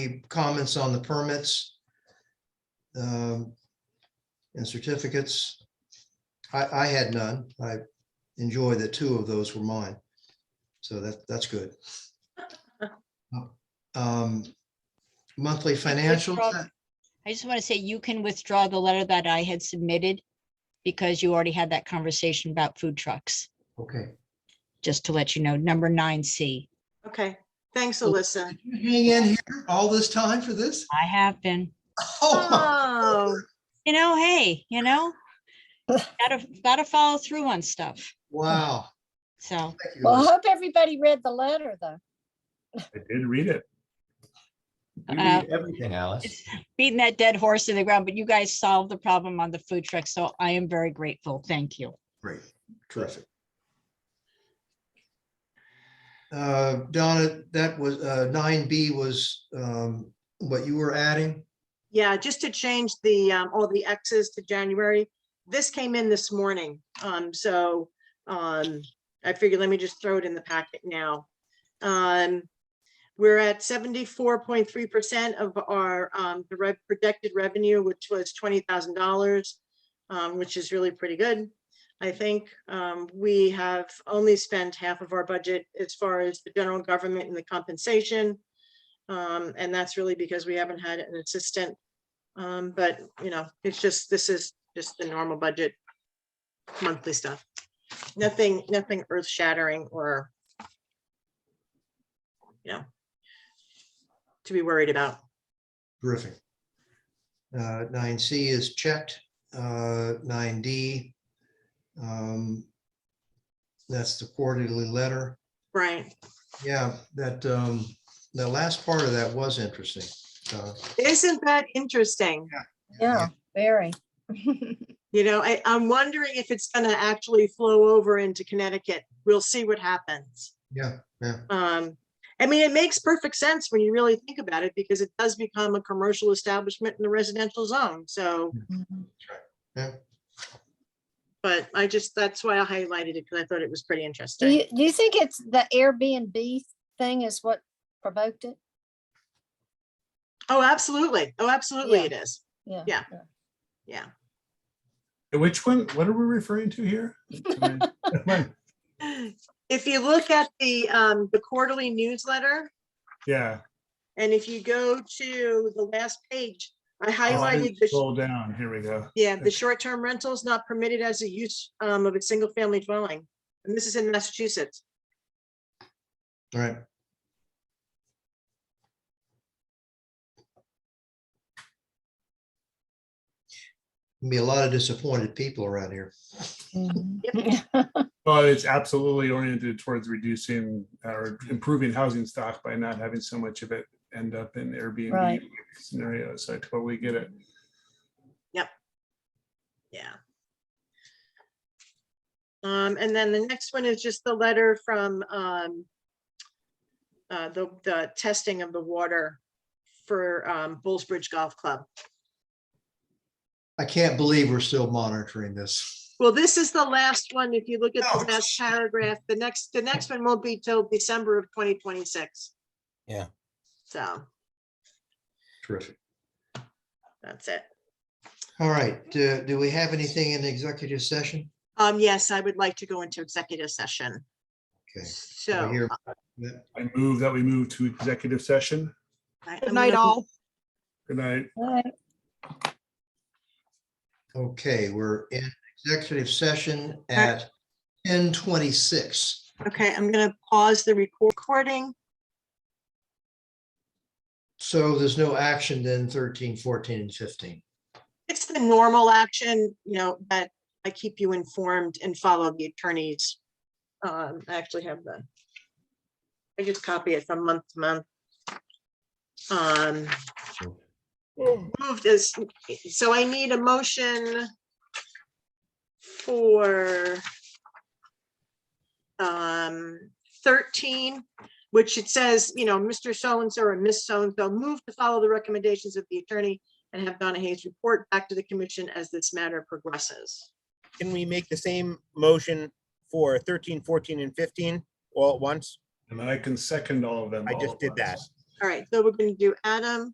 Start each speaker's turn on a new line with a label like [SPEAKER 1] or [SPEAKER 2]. [SPEAKER 1] comments on the permits um, and certificates? I, I had none. I enjoy that two of those were mine. So that, that's good. Um, Monthly financials,
[SPEAKER 2] problem. I just want to say you can withdraw the letter that I had submitted because you already had that conversation about food trucks,
[SPEAKER 1] okay.
[SPEAKER 2] just to let you know, number nine C.
[SPEAKER 3] Okay, thanks,
[SPEAKER 1] Okay.
[SPEAKER 3] Alyssa.
[SPEAKER 1] You Hang in here all this time for this?
[SPEAKER 2] I have been,
[SPEAKER 1] Oh, my-
[SPEAKER 3] Oh,
[SPEAKER 2] you know, hey, you know, gotta, gotta follow through on stuff.
[SPEAKER 1] wow.
[SPEAKER 2] So,
[SPEAKER 1] Thank you,
[SPEAKER 4] Well, I
[SPEAKER 1] Liz.
[SPEAKER 4] hope everybody read the letter, though.
[SPEAKER 5] I did read it.
[SPEAKER 6] You
[SPEAKER 2] Uh,
[SPEAKER 6] read everything, Alice.
[SPEAKER 2] beating that dead horse to the ground, but you guys solved the problem on the food truck. So I am very grateful. Thank you.
[SPEAKER 1] Great, terrific. Uh, Donna, that was, uh, nine B was um, what you were adding?
[SPEAKER 3] yeah, just to change the, um, all the X's to January. This came in this morning, um, so, um, I figured, let me just throw it in the packet now. Um, we're at seventy-four point three percent of our, um, the rev- projected revenue, which was twenty thousand dollars, um, which is really pretty good. I think, um, we have only spent half of our budget as far as the general government and the compensation. Um, and that's really because we haven't had an assistant. Um, but, you know, it's just, this is just the normal budget. Monthly stuff. Nothing, nothing earth shattering or. You know. To be worried about.
[SPEAKER 1] Terrific. Uh, Nine C is checked. Uh, Nine D. um, That's the quarterly letter.
[SPEAKER 3] Right.
[SPEAKER 1] Yeah, that, um, the last part of that was interesting. Donna.
[SPEAKER 3] Isn't that interesting?
[SPEAKER 1] Yeah.
[SPEAKER 4] Yeah, very.
[SPEAKER 3] You know, I, I'm wondering if it's gonna actually flow over into Connecticut. We'll see what happens.
[SPEAKER 1] Yeah,
[SPEAKER 3] Um, I mean, it makes perfect sense when you really think about it, because it does become a commercial establishment in the residential zone, so,
[SPEAKER 5] Mm-hmm.
[SPEAKER 3] but I just, that's why I highlighted it, because I thought it was pretty
[SPEAKER 4] Do you,
[SPEAKER 3] interesting.
[SPEAKER 4] do you think it's the Airbnb thing is what provoked it?
[SPEAKER 3] Oh, absolutely, oh, absolutely
[SPEAKER 4] Yeah.
[SPEAKER 3] it is,
[SPEAKER 4] Yeah.
[SPEAKER 3] Yeah. yeah.
[SPEAKER 5] Which one, what are we referring to here?
[SPEAKER 3] If you look at the, um, the quarterly newsletter,
[SPEAKER 5] Yeah.
[SPEAKER 3] and if you go to the last page, I
[SPEAKER 5] Oh, I
[SPEAKER 3] highlighted
[SPEAKER 5] didn't
[SPEAKER 3] the.
[SPEAKER 5] Scroll down, here we go.
[SPEAKER 3] Yeah, the short-term rental is not permitted as a use um, of a single-family dwelling. And this is in Massachusetts.
[SPEAKER 1] all right. Be a lot of disappointed people around here.
[SPEAKER 4] Mhm.
[SPEAKER 5] Well, it's absolutely oriented towards reducing or improving housing stock by not having so much of it end up in Airbnb
[SPEAKER 4] Right.
[SPEAKER 5] scenarios. I totally get it.
[SPEAKER 3] Yeah. Um, and then the next one is just the letter from um, uh, the, the testing of the water for um, Bulls Bridge Golf Club.
[SPEAKER 1] I can't believe we're still monitoring this.
[SPEAKER 3] Well, this is the last one. If you look at
[SPEAKER 1] Oh.
[SPEAKER 3] the last paragraph, the next, the next one won't be till December of twenty twenty-six.
[SPEAKER 6] Yeah.
[SPEAKER 3] So
[SPEAKER 1] Terrific.
[SPEAKER 3] that's it.
[SPEAKER 1] All right, do, do we have anything in the executive session?
[SPEAKER 3] Um, yes, I would like to go into executive session.
[SPEAKER 1] Okay.
[SPEAKER 3] So.
[SPEAKER 1] Here.
[SPEAKER 5] I move that we move to executive session.
[SPEAKER 3] I-
[SPEAKER 7] Good
[SPEAKER 3] I'm
[SPEAKER 7] night,
[SPEAKER 3] gonna-
[SPEAKER 7] all.
[SPEAKER 5] Good night.
[SPEAKER 4] Right.
[SPEAKER 1] Okay, we're in executive session at ten twenty-six.
[SPEAKER 3] Okay, I'm gonna pause the recor- recording.
[SPEAKER 1] So there's no action then 13, 14, and fifteen.
[SPEAKER 3] It's the normal action, you know, that I keep you informed and follow the attorneys. Um, I actually have the. I just copy it from month to month. Um. Moved as, so I need a motion. For. Um, thirteen, which it says, you know, Mr. So-and-so or Miss So-and-so move to follow the recommendations of the attorney and have Donna Hayes report back to the commission as this matter progresses.
[SPEAKER 7] Can we make the same motion for 13, 14, and 15 all at once?
[SPEAKER 5] And I can second all of them.
[SPEAKER 7] I
[SPEAKER 5] all
[SPEAKER 7] just
[SPEAKER 5] at
[SPEAKER 7] did that.
[SPEAKER 5] once.
[SPEAKER 3] All right, so we're going to do Adam,